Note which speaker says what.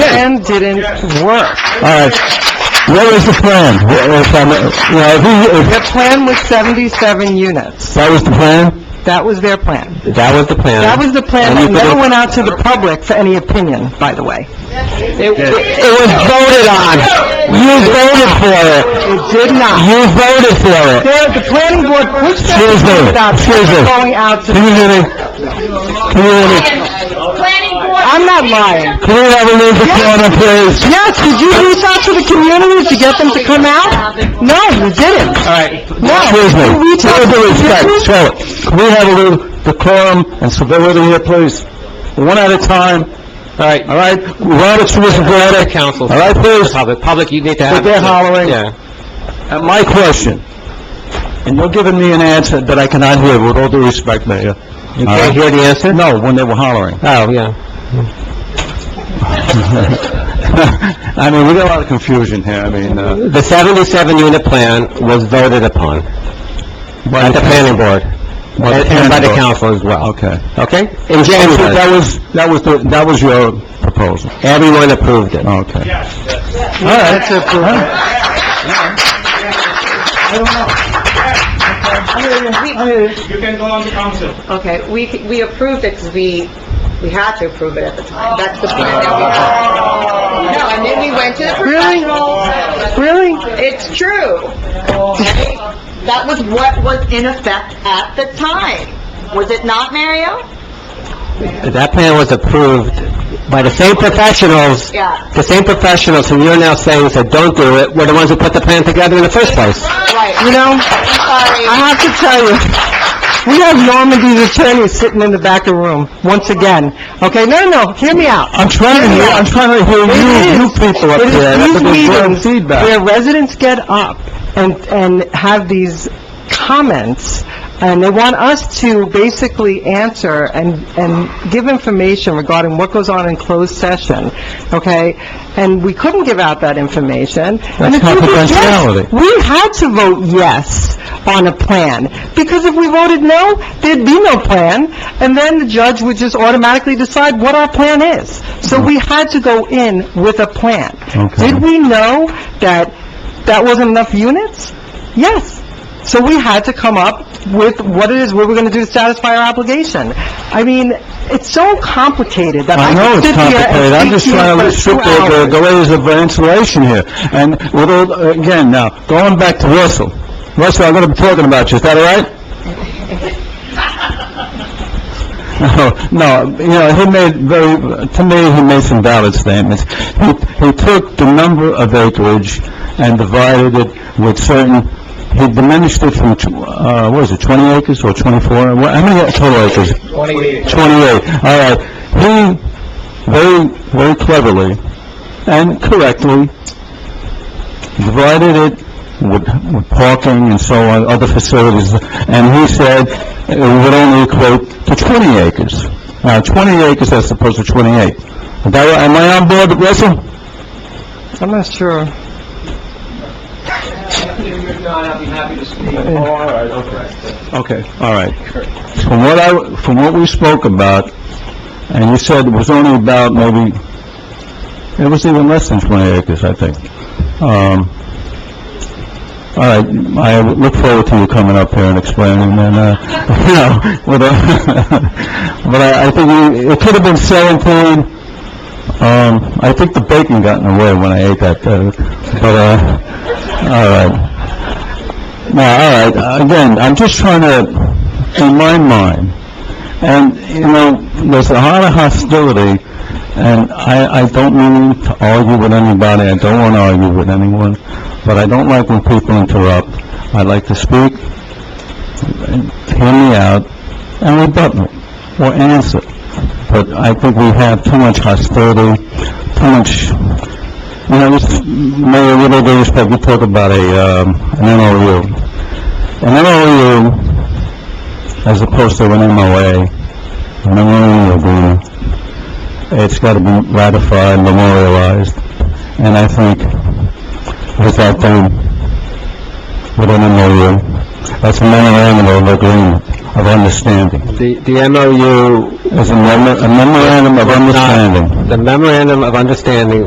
Speaker 1: plan didn't work.
Speaker 2: All right. What was the plan? What was, um, you know, if we- if
Speaker 1: Their plan was 77 units.
Speaker 2: that was the plan?
Speaker 1: That was their plan.
Speaker 2: That was the plan.
Speaker 1: That was the plan
Speaker 2: And you
Speaker 1: that
Speaker 2: put
Speaker 1: never
Speaker 2: it-
Speaker 1: went out to the public for any opinion, by the way. It it-
Speaker 2: It was voted on. You voted for it.
Speaker 1: it did not.
Speaker 2: You voted for it.
Speaker 1: There- The planning board pushed
Speaker 2: Excuse me.
Speaker 1: that
Speaker 2: Excuse me.
Speaker 1: going out to...
Speaker 2: Can you hear me? Can you hear me?
Speaker 1: I'm not lying.
Speaker 2: Can we have a move the corner, please?
Speaker 1: Yes, did you reach out to the community to get them to come out? No, you didn't.
Speaker 2: All right.
Speaker 1: No.
Speaker 2: Excuse me.
Speaker 1: You reach out
Speaker 2: With
Speaker 1: to
Speaker 2: due
Speaker 1: the
Speaker 2: respect,
Speaker 1: community?
Speaker 2: show it. Can we have a little decorum and civility here, please? One at a time. All right. All right? We want to choose a verdict.
Speaker 3: Council.
Speaker 2: All right, please?
Speaker 3: Public, public, you need to
Speaker 2: But
Speaker 3: have...
Speaker 2: they're hollering.
Speaker 3: Yeah.
Speaker 2: At my question, and you're giving me an answer that I cannot hear, with all due respect, Mayor. You
Speaker 3: can't
Speaker 2: hear the answer? No, when they were hollering.
Speaker 3: Oh, yeah.
Speaker 2: I mean, we got a lot of confusion here, I mean, uh...
Speaker 3: The 77-unit plan was voted upon at the planning board
Speaker 2: the
Speaker 3: and and by the
Speaker 2: planning board.
Speaker 3: council as well.
Speaker 2: Okay.
Speaker 3: Okay? In
Speaker 2: So
Speaker 3: January,
Speaker 2: that was, that was, the that was your proposal?
Speaker 3: everyone approved it.
Speaker 2: Okay.
Speaker 1: All right. That's a
Speaker 4: You can go on the council.
Speaker 5: Okay, we, we approved it because we, we had to approve it at the time. That's the plan that we had. No, and then we went to the
Speaker 1: Really?
Speaker 5: professionals.
Speaker 1: Really?
Speaker 5: It's true. Okay? That was what was in effect at the time. Was it not, Mario?
Speaker 3: That plan was approved by the same professionals,
Speaker 5: Yeah,
Speaker 3: the same professionals who you're now saying said, "Don't do it," were the ones who put the plan together in the first place.
Speaker 5: right.
Speaker 1: You know, I
Speaker 5: Sorry.
Speaker 1: have to tell you, we have Normandy's attorney sitting in the back of the room, once again. Okay, no, no, hear me out.
Speaker 2: I'm trying to hear, I'm trying to hear you, you people up
Speaker 1: It
Speaker 2: there.
Speaker 1: is
Speaker 2: That's
Speaker 1: these
Speaker 2: a good
Speaker 1: meetings
Speaker 2: feedback.
Speaker 1: where residents get up and, and have these comments, and they want us to basically answer and, and give information regarding what goes on in closed session, okay? And we couldn't give out that information. And
Speaker 2: That's
Speaker 1: the truth is, yes,
Speaker 2: confidentiality.
Speaker 1: We had to vote yes on a plan, because if we voted no, there'd be no plan, and then the judge would just automatically decide what our plan is. So we had to go in with a plan.
Speaker 2: Mm-hmm. Okay.
Speaker 1: Did we know that that wasn't enough units? Yes. So we had to come up with what it is we were going to do to satisfy our obligation. I mean, it's so complicated that
Speaker 2: I
Speaker 1: I
Speaker 2: know
Speaker 1: could
Speaker 2: it's
Speaker 1: sit here
Speaker 2: complicated, I'm
Speaker 1: and
Speaker 2: just
Speaker 1: speak to you for
Speaker 2: trying to restrict
Speaker 1: two
Speaker 2: the, the-
Speaker 1: hours.
Speaker 2: the ways of insulation here. And with all, again, now, going back to Russell. Russell, I'm gonna be talking about you, is that all right? No, you know, he made very, to me, he made some valid statements. He, he took the number of acreage and divided it with certain, he diminished it from, tw- uh, what is it, 20 acres or 24? What- How many total acres?
Speaker 4: 28.
Speaker 2: 28, all right. He very, very cleverly and correctly divided it with with parking and so on, other facilities, and he said it would only equate to 20 acres. Now, 20 acres as opposed to 28. Is that right? Am I on board, Russell?
Speaker 1: I'm not sure.
Speaker 4: If not, I'll be happy to speak. Oh, all right, okay.
Speaker 2: Okay, all right. From what I, from what we spoke about, and you said it was only about maybe, it was even less than 20 acres, I think. Um, all right, I look forward to you coming up here and explaining, and, uh, you know, with a- but I, I think we- it could have been 17. Um, I think the bacon got in the way when I ate that, uh, but, uh, all right. No, all right, again, I'm just trying to, in my mind, and, you know, there's a lot of hostility, and I, I don't mean to argue with anybody, I don't want to argue with anyone, but I don't like when people interrupt. I like to speak, and hear me out, and rebut me, or answer. But I think we have too much hostility, too much you know, this, Mayor, with all due respect, we talk about a, um, an MOU. An MOU, as opposed to an MOA, an MOU agreement, it's gotta be ratified, memorialized, and I think with that done, with an MOU, that's a memorandum of agreement, of understanding.
Speaker 3: The the MOU,
Speaker 2: It's a memo- a memorandum of understanding.
Speaker 3: the memorandum of understanding